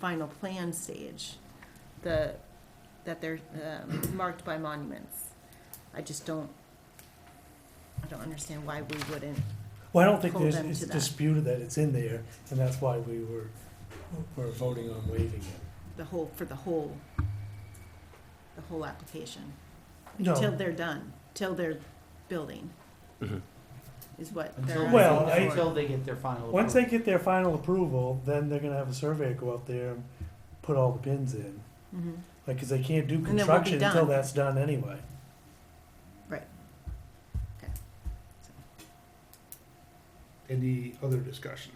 final plan stage, the, that they're um, marked by monuments. I just don't, I don't understand why we wouldn't. Well, I don't think Hold there's, them it's to that. disputed that it's in there, and that's why we were, were voting on waiving it. the whole, for the whole, the whole application. No. Till they're done, till they're building. Mhm. Is what they're Until, asking for. Well, I- until they get their final. Once they approval. get their final approval, then they're gonna have a surveyor go out there and put all the pins in. Mhm. Like, cause they can't do then we'll be construction until done. that's done anyway. Any other discussion?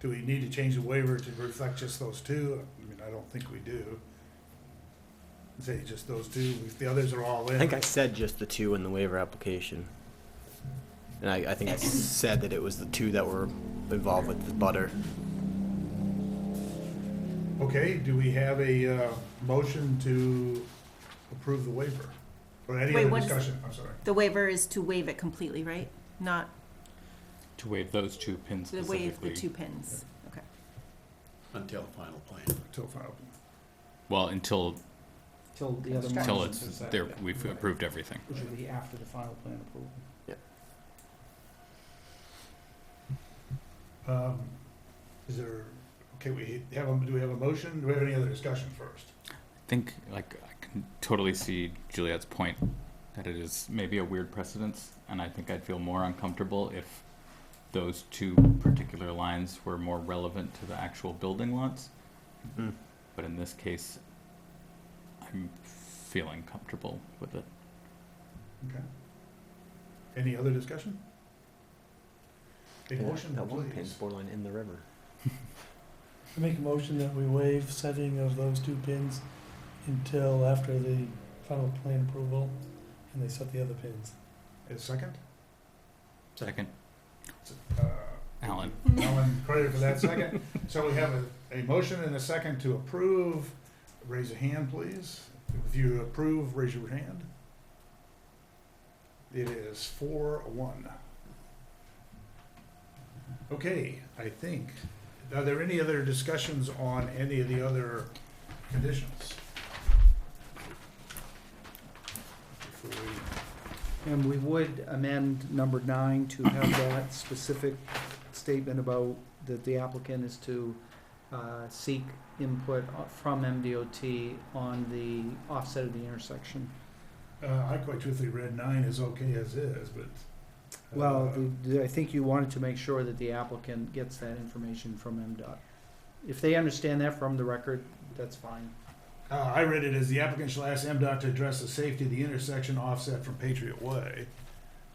Do we need to change the waiver to reflect just those two? I mean, I don't think we do. Say just those two, if the others are all in. I think I said just the two in the waiver application. And I, I think I said that it was the two that were involved with the butter. Okay, do we have a, uh, motion to approve the waiver? Or any Wait, other what is- discussion, I'm sorry. The waiver is to waive it completely, right? Not To waive those two pins to waive the two specifically. pins, okay. Until final plan. Till final. Well, until, Till the other. until monuments it's, are set, there, yeah. we've approved everything. Which would be after the final plan approval. Um, is there, okay, we have, a- do we have a motion? Do we have any other discussion first? I think, like, I can totally see Juliet's point that it is maybe a weird precedence, and I think I'd feel more uncomfortable if those two particular lines were more relevant to the actual building lots. Mm. But in this case, I'm feeling comfortable with it. Any other discussion? A motion, That one pin's please. borderline in the river. I make a motion that we waive setting of those two pins until after the final plan approval, and they set the other pins. A second? Second. Uh, Alan. Alan, credit for that second. So we have a, a motion and a second to approve. Raise a hand, please. If you approve, raise your hand. It is four, one. Okay, I think. Are there any other discussions on any of the other conditions? Before we And we would amend number nine to have that specific statement about that the applicant is to uh, seek input o- from MDOT on the offset of the intersection. Uh, I quite truthfully read nine is okay as is, but. uh, Well, the- the- I think you wanted to make sure that the applicant gets that information from MDOT. If they understand that from the record, that's fine. Uh, I read it as the applicant shall ask MDOT to address the safety of the intersection offset from Patriot Way.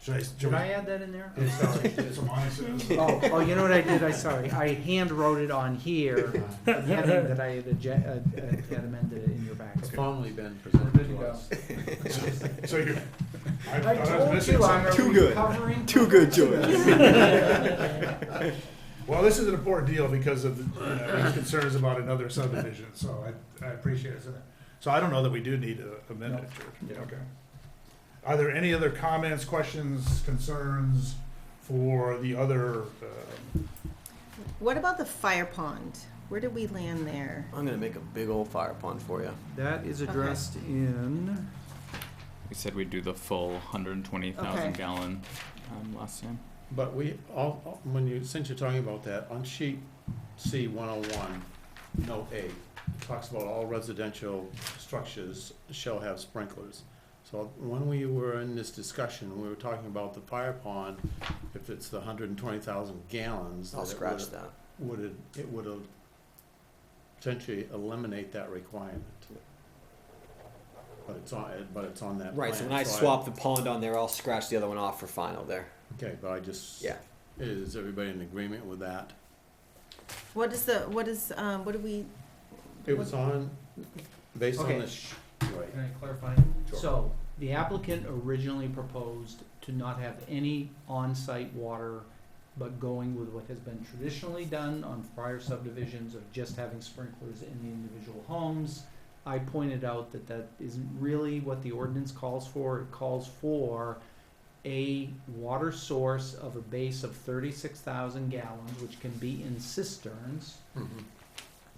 Should I? Did I add that in there? It's, uh, it's a mindset. Oh, oh, you know what I did? I, sorry, I hand wrote it on here, the heading that I had adje- uh, uh, had amended it in your back. It's formally been Good presented to to go. us. So you're. I thought I was missing something. Too good. Too good, Well, this is an important deal because of uh, these concerns about another subdivision, so I, I appreciate it. So I don't know that we do need to amend it, George. No. Okay. Are there any other comments, questions, concerns for the other, um, What about the fire pond? Where did we land there? I'm gonna make a big old fire pond for you. That is addressed in, We said we'd do the full 120,000 Okay. gallon um, last time. But we, all, all- when you, since you're talking about that, on sheet C one oh one, note A, it talks about all residential structures shall have sprinklers. So when we were in this discussion, we were talking about the fire pond, if it's the hundred and twenty thousand gallons. I'll that it scratch would- that. Would it, it would el- potentially eliminate that requirement. But it's on, but it's on that plan. Right, so when I swap the pond on there, I'll scratch the other one off for final there. Okay, but I just. Yeah. Is everybody in agreement with that? What is the, what is, um, what do we, It was on, based on Okay. the, sh- right. can I clarify? Sure. So, the applicant originally proposed to not have any on-site water, but going with what has been traditionally done on prior subdivisions of just having sprinklers in the individual homes. I pointed out that that isn't really what the ordinance calls for. It calls for a water source of a base of thirty-six thousand gallons, which can be in cisterns,